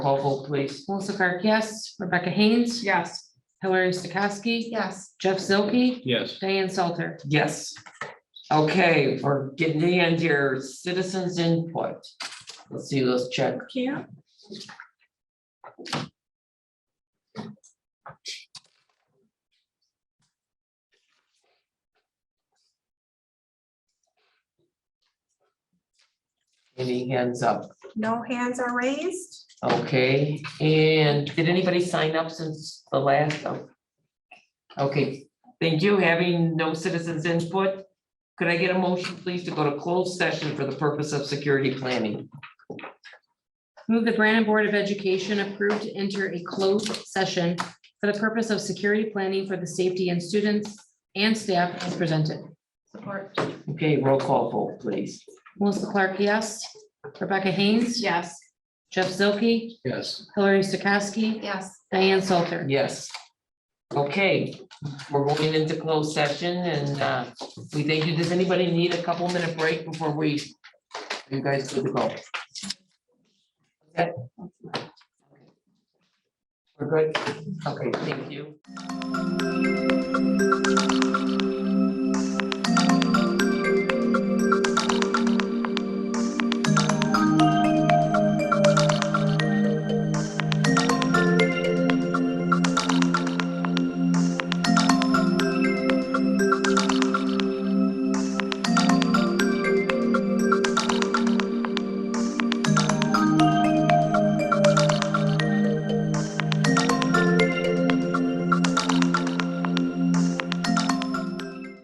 Call vote, please. Melissa Clark, yes. Rebecca Haynes. Yes. Hillary Stokowski. Yes. Jeff Zilke. Yes. Diane Salter. Yes. Okay, we're getting the end here. Citizens input. Let's see, let's check. Can't. Any hands up? No hands are raised. Okay, and did anybody sign up since the last? oh. Okay, thank you. Having no citizens input, could I get a motion, please, to go to closed session for the purpose of security planning? Move the Brandon Board of Education approved to enter a closed session for the purpose of security planning for the safety and students and staff as presented. Support. Okay, roll call vote, please. Melissa Clark, yes. Rebecca Haynes. Yes. Jeff Zilke. Yes. Hillary Stokowski. Yes. Diane Salter. Yes. Okay, we're going into closed session and uh, we thank you. Does anybody need a couple minute break before we? You guys good to go? Okay. We're good? Okay, thank you.